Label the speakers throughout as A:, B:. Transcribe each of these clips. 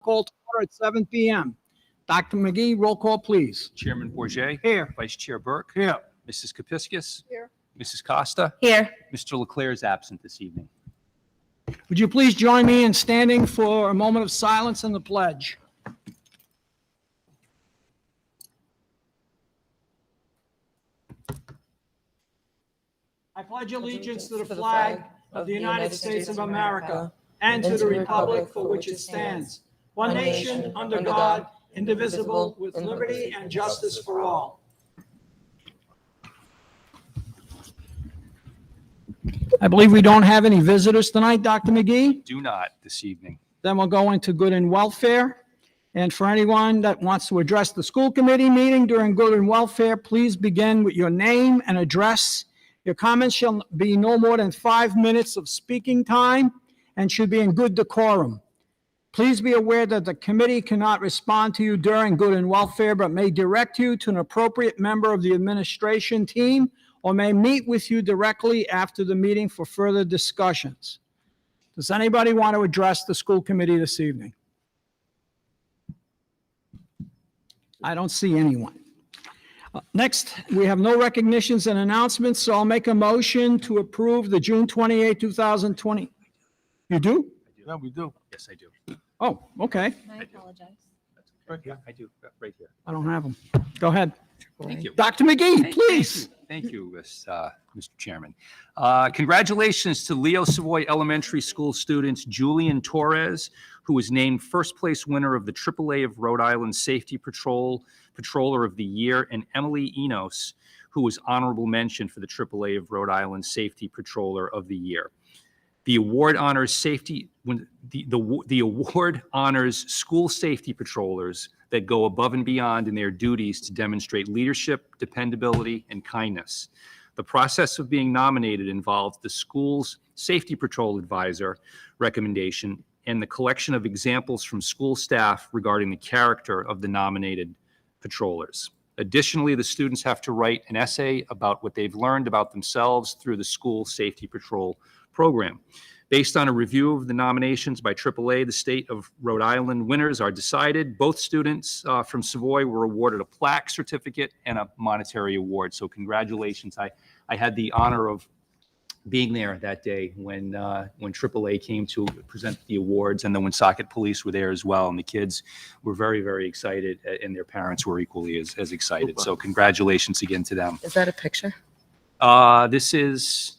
A: call to order at 7 PM. Dr. McGee, roll call, please.
B: Chairman Bourget,
A: Here.
B: Vice Chair Burke,
A: Here.
B: Mrs. Kepiscus.
A: Here.
B: Mrs. Costa.
C: Here.
B: Mr. Leclerc is absent this evening.
A: Would you please join me in standing for a moment of silence and the pledge? I pledge allegiance to the flag of the United States of America and to the republic for which it stands, one nation, under God, indivisible, with liberty and justice for all. I believe we don't have any visitors tonight, Dr. McGee?
B: Do not this evening.
A: Then we'll go into good and welfare. And for anyone that wants to address the school committee meeting during good and welfare, please begin with your name and address. Your comments shall be no more than five minutes of speaking time and should be in good decorum. Please be aware that the committee cannot respond to you during good and welfare, but may direct you to an appropriate member of the administration team or may meet with you directly after the meeting for further discussions. Does anybody want to address the school committee this evening? I don't see anyone. Uh, Next, we have no recognitions and announcements, so I'll make a motion to approve the June 28, 2020. You do?
D: Yeah, we do.
B: Yes, I do.
A: Oh, okay.
C: I apologize.
B: Right here. I do, right here.
A: I don't have them. Go ahead.
B: Thank you.
A: Dr. McGee,
B: Thank you.
A: please.
B: Thank you, Miss, uh, Mr. Chairman. Uh, Congratulations to Leo Savoy Elementary School students Julian Torres, who was named first place winner of the AAA of Rhode Island Safety Patrol Patroller of the Year, and Emily Enos, who was honorable mention for the AAA of Rhode Island Safety Patroller of the Year. The award honors safety, when, the, the, wa- the award honors school safety patrollers that go above and beyond in their duties to demonstrate leadership, dependability, and kindness. The process of being nominated involved the school's safety patrol advisor recommendation and the collection of examples from school staff regarding the character of the nominated patrollers. Additionally, the students have to write an essay about what they've learned about themselves through the school safety patrol program. Based on a review of the nominations by AAA, the state of Rhode Island winners are decided. Both students uh, from Savoy were awarded a plaque certificate and a monetary award. So congratulations. I, I had the honor of being there that day when, uh, when AAA came to present the awards and the Woonsocket Police were there as well. And the kids were very, very excited a- and their parents were equally as, as excited. So congratulations again to them.
C: Is that a picture?
B: Uh, this is,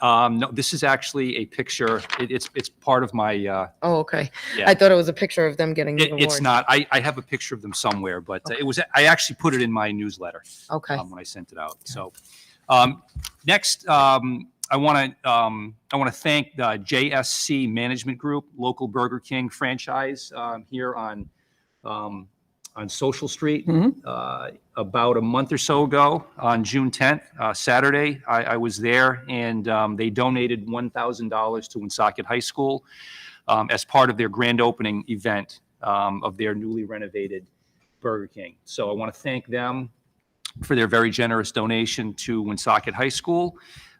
B: um, no, this is actually a picture. It, it's, it's part of my, uh,
C: Oh, okay.
B: yeah.
C: I thought it was a picture of them getting the
B: It,
C: award.
B: it's not, I, I have a picture of them somewhere, but uh, it was, I actually put it in my newsletter,
C: Okay.
B: um, when I sent it out. So, um, next, um, I want to, um, I want to thank the JSC Management Group, local Burger King franchise, um, here on, um, on Social Street
A: Mhm.
B: uh, about a month or so ago, on June 10th, uh, Saturday, I, I was there, and um, they donated $1,000 to Woonsocket High School um, as part of their grand opening event um, of their newly renovated Burger King. So I want to thank them for their very generous donation to Woonsocket High School.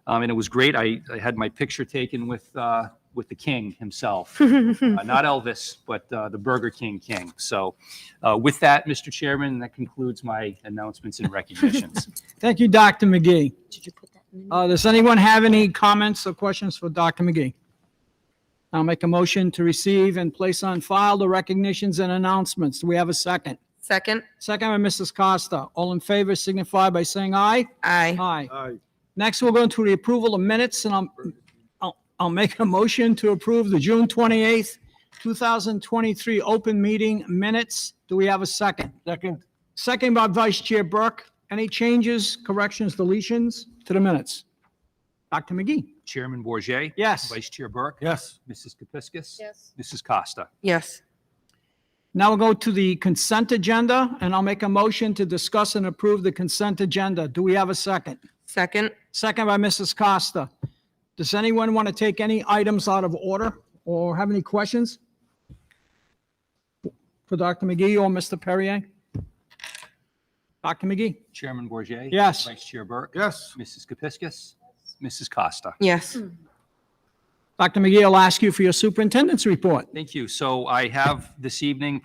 B: Um, And it was great. I, I had my picture taken with, uh, with the king himself. Uh, Not Elvis, but uh, the Burger King King. So uh, With that, Mr. Chairman, that concludes my announcements and recognitions.
A: Thank you, Dr. McGee.
C: Did you put that in?
A: Uh, Does anyone have any comments or questions for Dr. McGee? I'll make a motion to receive and place on file the recognitions and announcements. Do we have a second?
C: Second?
A: Second by Mrs. Costa. All in favor signify by saying aye.
C: Aye.
A: Aye.
D: Aye.
A: Next, we'll go into the approval of minutes, and I'll, I'll, I'll make a motion to approve the June 28th, 2023 open meeting minutes. Do we have a second?
D: Second.
A: Second by Vice Chair Burke. Any changes, corrections, deletions to the minutes? Dr. McGee?
B: Chairman Bourget,
A: Yes.
B: Vice Chair Burke.
D: Yes.
B: Mrs. Kepiscus.
C: Yes.
B: Mrs. Costa.
C: Yes.
A: Now we'll go to the consent agenda, and I'll make a motion to discuss and approve the consent agenda. Do we have a second?
C: Second?
A: Second by Mrs. Costa. Does anyone want to take any items out of order or have any questions? For Dr. McGee or Mr. Perrier? Dr. McGee?
B: Chairman Bourget.
A: Yes.
B: Vice Chair Burke.
D: Yes.
C: Hmm.
B: Mrs. Kepiscus. Mrs. Costa.
C: Yes.
A: Dr. McGee will ask you for your superintendent's report.
B: Thank you. So I have this evening